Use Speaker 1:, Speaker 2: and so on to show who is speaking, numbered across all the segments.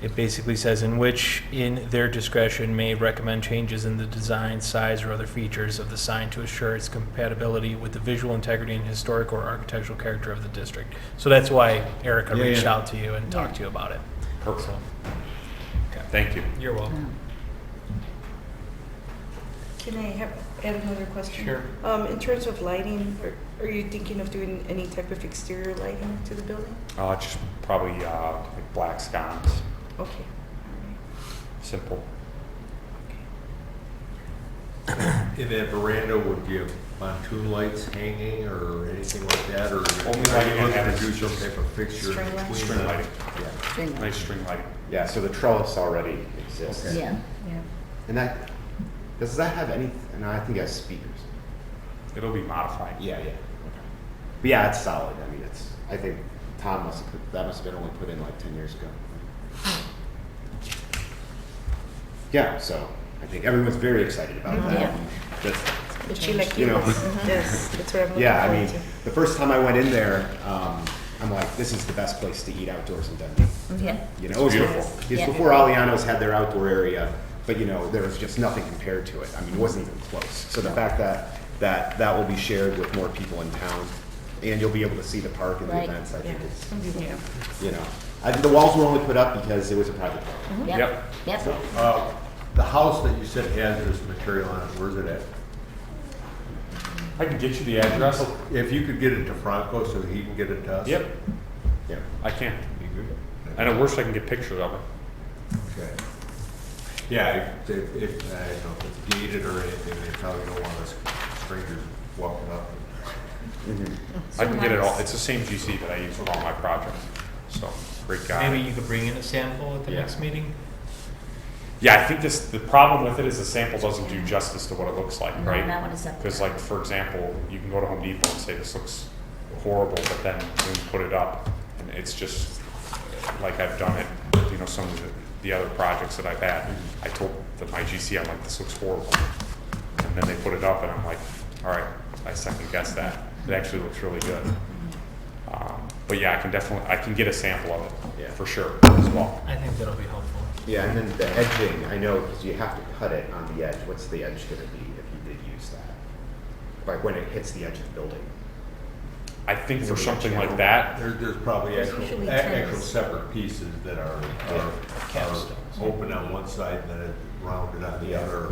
Speaker 1: It basically says, "In which, in their discretion, may recommend changes in the design, size, or other features of the sign to assure its compatibility with the visual integrity and historic or architectural character of the district." So that's why Erica
Speaker 2: Yeah,
Speaker 1: reached
Speaker 2: yeah.
Speaker 1: out to you and talked to you about it.
Speaker 3: Perfect.
Speaker 1: So,
Speaker 3: Thank you.
Speaker 1: You're welcome.
Speaker 4: Can I have, add another question?
Speaker 1: Sure.
Speaker 4: Um, in terms of lighting, are, are you thinking of doing any type of exterior lighting to the building?
Speaker 3: Uh, just probably uh, like black sconce,
Speaker 4: Okay, all
Speaker 3: simple.
Speaker 4: right, okay.
Speaker 2: In that veranda, would you have pontoon lights hanging or anything like that, or
Speaker 3: Only
Speaker 2: are
Speaker 3: lighting
Speaker 2: you
Speaker 3: I
Speaker 2: looking
Speaker 3: have
Speaker 2: to do
Speaker 3: is
Speaker 2: some type of fixture
Speaker 4: string
Speaker 2: in
Speaker 4: lights?
Speaker 2: between?
Speaker 3: String
Speaker 2: the-
Speaker 3: lighting.
Speaker 2: Yeah,
Speaker 3: Nice string lighting.
Speaker 5: Yeah, so the trellis already exists.
Speaker 2: Okay.
Speaker 6: Yeah,
Speaker 5: And that, does that have any, and I think it has speakers.
Speaker 3: It'll be modified.
Speaker 5: Yeah, yeah. But yeah, it's solid. I mean, it's, I think Tom must have put, that must have been only put in like ten years ago. Yeah, so I think everyone's very excited about
Speaker 4: Mm-hmm.
Speaker 6: Yeah.
Speaker 5: that. That's-
Speaker 4: But she like
Speaker 5: You know.
Speaker 4: yes, that's what I'm looking
Speaker 5: Yeah, I
Speaker 4: forward
Speaker 5: mean,
Speaker 4: to.
Speaker 5: the first time I went in there, um, I'm like, this is the best place to eat outdoors in Denver.
Speaker 6: yeah.
Speaker 5: You know, it was
Speaker 3: beautiful.
Speaker 5: before, it
Speaker 6: Yeah.
Speaker 5: was before Aliano's had their outdoor area, but you know, there was just nothing compared to it. I mean, it wasn't even close. So the fact that, that, that will be shared with more people in town, and you'll be able to see the park and the
Speaker 6: Right.
Speaker 5: events, I think
Speaker 4: Yeah.
Speaker 5: it's,
Speaker 4: Some people-
Speaker 5: you know. I think the walls were only put up because it was a private park.
Speaker 6: Yep, yep.
Speaker 2: Uh, The house that you said has this material on it, where's it at?
Speaker 3: I can get you the address.
Speaker 2: If you could get it to Franco so he can get it to us?
Speaker 3: Yep,
Speaker 5: Yeah.
Speaker 3: I can.
Speaker 2: be good.
Speaker 3: And at worst, I can get pictures of it.
Speaker 2: Okay. Yeah, if, if, if- I don't know if it's gated or anything, they probably don't want us strangers walking up.
Speaker 3: I can get it all. It's the same GC that I use for all my projects. So great guy.
Speaker 1: Maybe you could bring in a sample at the
Speaker 3: Yeah.
Speaker 1: next meeting?
Speaker 3: Yeah, I think this, the problem with it is the sample doesn't do justice to what it looks like,
Speaker 6: No,
Speaker 3: right?
Speaker 6: that one is up
Speaker 3: Because
Speaker 6: there.
Speaker 3: like, for example, you can go to Home Depot and say, this looks horrible, but then when you put it up, and it's just, like I've done it, you know, some of the, the other projects that I've had, I told the, my GC, I'm like, this looks horrible. And then they put it up and I'm like, all right, I second guess that. It actually looks really good. Um, But yeah, I can definitely, I can get a sample of
Speaker 5: Yeah.
Speaker 3: it, for sure, as well.
Speaker 1: I think that'll be helpful.
Speaker 5: Yeah, and then the edging, I know, because you have to cut it on the edge. What's the edge gonna be if you did use that? Like when it hits the edge of the building?
Speaker 3: I think for
Speaker 5: Maybe a
Speaker 3: something
Speaker 5: channel.
Speaker 3: like that,
Speaker 2: There, there's probably
Speaker 6: There's
Speaker 2: actual,
Speaker 6: usually
Speaker 2: a- actual
Speaker 6: terrace.
Speaker 2: separate pieces that are, are, are
Speaker 1: Capstones.
Speaker 2: open on one side and then rounded on the
Speaker 5: Yeah.
Speaker 2: other. or-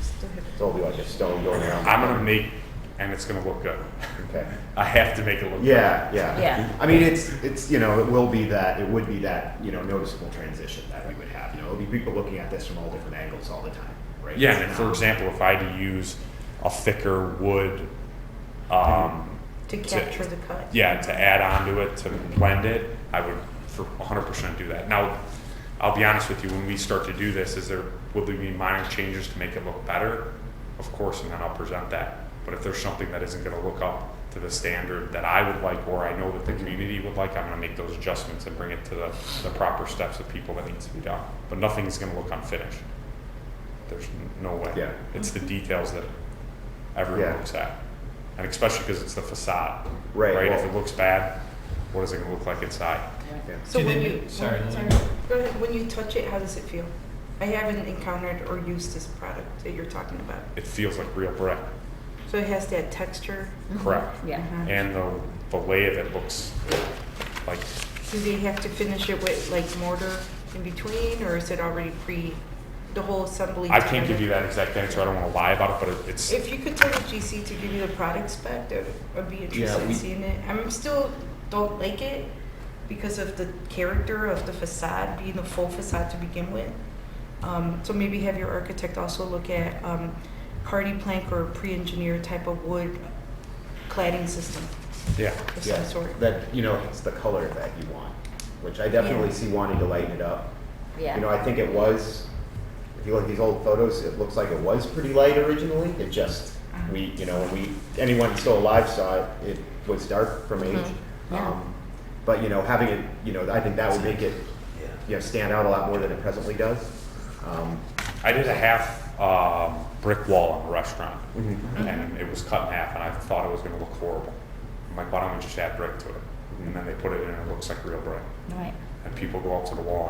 Speaker 4: Still have
Speaker 5: So it'll be like a stone going around.
Speaker 3: I'm gonna make, and it's gonna look good.
Speaker 5: Okay.
Speaker 3: I have to make it look
Speaker 5: Yeah, yeah.
Speaker 6: Yeah.
Speaker 5: I mean, it's, it's, you know, it will be that, it would be that, you know, noticeable transition that we would have. You know, it'll be people looking at this from all different angles all the time, right?
Speaker 3: good. Yeah, and for example, if I had to use a thicker wood, um,
Speaker 4: To capture the cut.
Speaker 3: yeah, to add onto it, to blend it, I would for hundred percent do that. Now, I'll be honest with you, when we start to do this, is there, will there be minor changes to make it look better? Of course, and then I'll present that. But if there's something that isn't gonna look up to the standard that I would like, or I know that the community would like, I'm gonna make those adjustments and bring it to the, the proper steps of people that needs to be done. But nothing is gonna look unfinished. There's n- no way.
Speaker 5: Yeah.
Speaker 3: It's the details that everyone
Speaker 5: Yeah.
Speaker 3: looks at. And especially because it's the facade.
Speaker 5: Right,
Speaker 3: If
Speaker 5: well-
Speaker 3: it looks bad, what is it gonna look like inside?
Speaker 4: So
Speaker 1: Do they
Speaker 4: when
Speaker 1: do-
Speaker 4: you,
Speaker 1: sorry,
Speaker 4: oh,
Speaker 1: Lily.
Speaker 4: Go ahead. when you touch it, how does it feel? I haven't encountered or used this product that you're talking about.
Speaker 3: It feels like real brick,
Speaker 4: So it has that texture.
Speaker 3: correct?
Speaker 6: Yeah.
Speaker 1: Mm-hmm.
Speaker 3: And the, the lay of it looks like,
Speaker 4: Do they have to finish it with like mortar in between, or is it already pre, the whole assembly?
Speaker 3: I can't give you that exact answer, I don't wanna lie about it, but it- it's,
Speaker 4: If you could tell the GC to give you the product spec, that I'd be interested in
Speaker 5: we-
Speaker 4: seeing it. I'm still don't like it because of the character of the facade being a full facade to begin with. Um, so maybe have your architect also look at um, hardy plank or pre-engineered type of wood cladding system
Speaker 3: yeah.
Speaker 4: of
Speaker 5: Yeah,
Speaker 4: some sort.
Speaker 5: that, you know, it's the color that you want, which I definitely
Speaker 4: Yeah.
Speaker 5: see wanting to lighten it up. You know,
Speaker 6: Yeah,
Speaker 5: I think it was, if you look at these old photos, it looks like it was pretty light originally. It just,
Speaker 6: Uh-huh.
Speaker 5: we, you know, when we, anyone still alive saw it, it was dark from age.
Speaker 6: Uh-huh. Yeah.
Speaker 5: Um, But, you know, having it, you know, I think that would make it, you know, stand out a lot more than it presently does. Um,
Speaker 3: I did a half, um, brick wall in a restaurant, and it was cut in half, and I thought it was gonna look horrible. I'm like, why don't we just add brick to it? And then they put it in, and it looks like real brick.
Speaker 6: right.
Speaker 3: And people go up to the wall